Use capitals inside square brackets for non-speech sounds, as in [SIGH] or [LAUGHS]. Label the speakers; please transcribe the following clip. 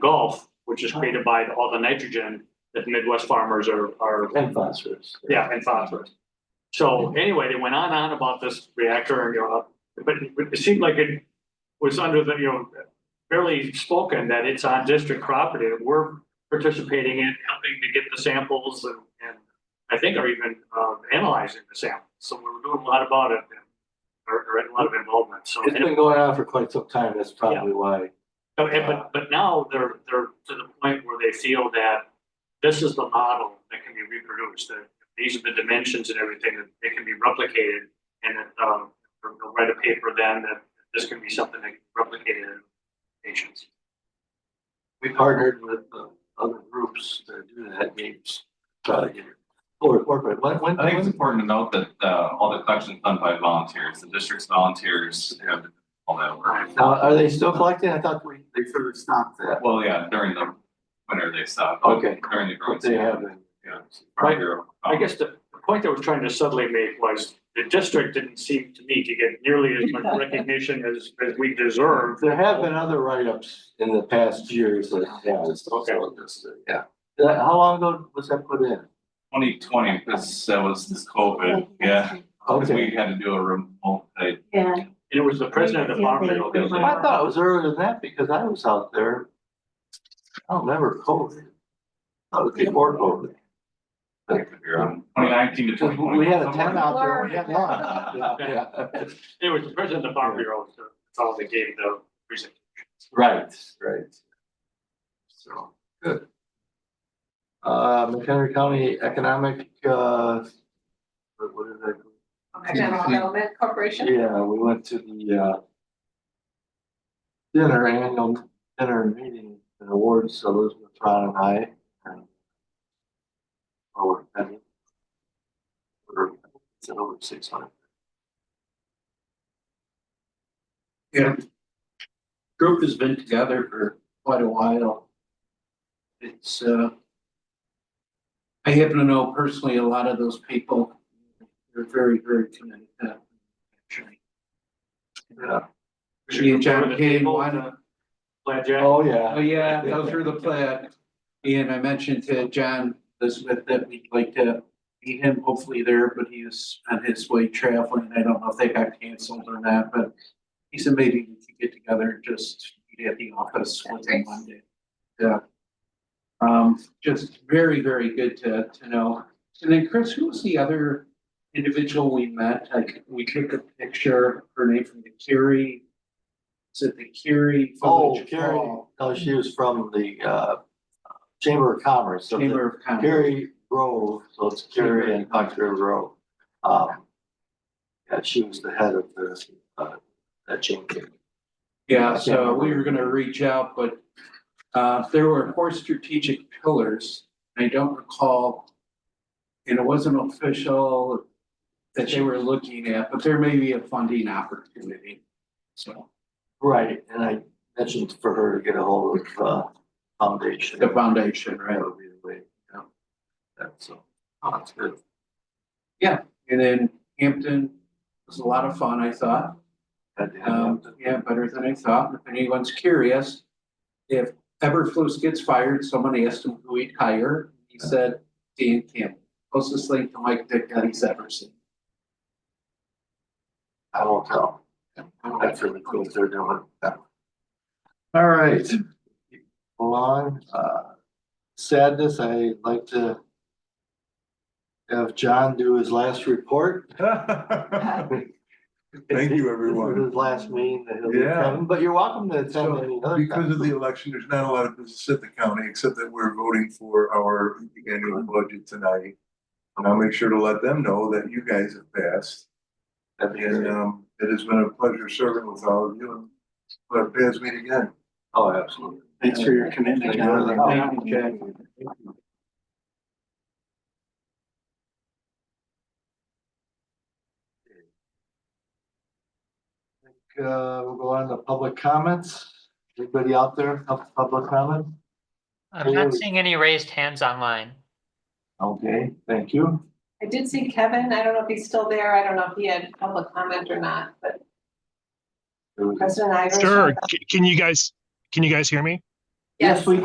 Speaker 1: which is created by all the nitrogen that the Midwest farmers are, are
Speaker 2: and phosphorus.
Speaker 1: yeah, and phosphorus. So anyway, they went on and on about this reactor and, you know, but but it seemed like it was under the, you know, barely spoken that it's on district property, that we're participating in helping to get the samples and, and I think are even, uh, analyzing the samples. So we were doing a lot about it and, or, or a lot of involvement, so.
Speaker 2: It's been going on for quite some time, that's probably why.
Speaker 1: Oh, and but, but now they're, they're to the point where they feel that this is the model that can be reproduced, that these are the dimensions and everything, that they can be replicated. And that, um, they'll they'll write a paper then that this can be something that can be replicated in patients.
Speaker 2: We partnered with uh, other groups to do that, games, try to get it. Or corporate, when, when,
Speaker 3: I think it's
Speaker 2: when-
Speaker 3: important to note that uh all the collections done by volunteers, the district's volunteers have all that work.
Speaker 2: now, are they still collecting? I thought we, they sort of stopped that.
Speaker 3: Well, yeah, during the winter they stop.
Speaker 2: Okay.
Speaker 3: During the growing
Speaker 2: But they
Speaker 3: season. Um,
Speaker 2: haven't.
Speaker 3: yeah.
Speaker 1: Right. I guess the, the point I was trying to subtly make was the district didn't seem to me to get nearly as much recognition as, as we deserve.
Speaker 2: There have been other write-ups in the past years that have.
Speaker 1: Okay.
Speaker 2: Yeah. Uh, How long ago was that put in?
Speaker 3: Twenty twenty, this that was this COVID, yeah. 'Cause
Speaker 2: Okay.
Speaker 3: we had to do a remote type.
Speaker 4: Yeah,
Speaker 1: And it was the president of the farm bill. that was
Speaker 2: I thought it was earlier than that because I was out there. I don't remember COVID. I was before COVID.
Speaker 3: Twenty nineteen to twenty twenty.
Speaker 2: We had a tent out there, we had lunch. Yeah, yeah.
Speaker 1: It was the president of the farm bureau, so that's all they gave the presentation.
Speaker 2: [LAUGHS] Right, right. So, good. Uh, McHenry County Economic, uh, what what did I?
Speaker 4: general development corporation.
Speaker 2: Yeah, we went to the uh. Dinner, annual dinner meeting and awards, Elizabeth Ron and I. and- Oh, I mean. We're, it's at over six hundred.
Speaker 5: group has been together for quite a while. It's, uh, I happen to know personally a lot of those people. They're very, very committed to that. actually.
Speaker 2: Yeah.
Speaker 5: Me and John came, why not?
Speaker 1: Glad Jack.
Speaker 2: Oh, yeah.
Speaker 5: Oh, yeah, go through the plat. And I mentioned to John Elizabeth that we'd like to meet him hopefully there, but he is on his way traveling. I don't know if they got canceled or not, but he said maybe we could get together and just meet at the office with him Monday. Yeah. Um, just very, very good to, to know. And then Chris, who was the other individual we met? Like, we took a picture, her name from the Curie. Is it the Curie?
Speaker 2: Oh,
Speaker 5: Village
Speaker 2: Carrie,
Speaker 5: Hall?
Speaker 2: no, she was from the uh Chamber of Commerce. so the-
Speaker 5: Chamber of Commerce.
Speaker 2: Gary Grove, so it's Gary and Dr. Grove. Um, yeah, she was the head of the, uh, that chamber.
Speaker 5: Yeah, so we were gonna reach out, but uh, there were four strategic pillars. I don't recall. And it wasn't official that they were looking at, but there may be a funding opportunity. So
Speaker 2: Right, and I mentioned for her to get a hold of, uh, foundation.
Speaker 5: the foundation, right?
Speaker 2: That would be the way, yeah. That's, so, that's good.
Speaker 5: And then Hampton was a lot of fun, I thought.
Speaker 2: Had to have
Speaker 5: Um,
Speaker 2: that.
Speaker 5: yeah, better than I thought. If anyone's curious, if Everflus gets fired, someone asked him who he'd hire. He said Dan Campbell, closest link to Mike Dick that he's ever seen.
Speaker 2: I won't tell. That's really cool, they're doing that. All right. Along, uh, sadness, I'd like to have John do his last report.
Speaker 6: [LAUGHS] Thank you,
Speaker 2: This is
Speaker 6: everyone.
Speaker 2: His last meeting that he'll be
Speaker 6: Yeah.
Speaker 2: attending, but you're welcome to attend
Speaker 6: So,
Speaker 2: any other
Speaker 6: Because of
Speaker 2: time.
Speaker 6: the election, there's not a lot of business at the county, except that we're voting for our annual budget tonight. And I'll make sure to let them know that you guys have passed.
Speaker 2: That'd be
Speaker 6: And
Speaker 2: great.
Speaker 6: um, it has been a pleasure serving with all of you. and But pass meet again.
Speaker 2: Oh, absolutely.
Speaker 5: Thanks for your commitment.
Speaker 2: John.
Speaker 5: Thank you, Jack.
Speaker 2: Uh, we'll go on to public comments. Anybody out there, have public comment?
Speaker 7: I'm not
Speaker 2: Hello.
Speaker 7: seeing any raised hands online.
Speaker 2: Okay, thank you.
Speaker 4: I did see Kevin. I don't know if he's still there. I don't know if he had public comment or not, but President Ivor.
Speaker 8: Sure. C- Can you guys, can you guys hear me?
Speaker 2: Yes, we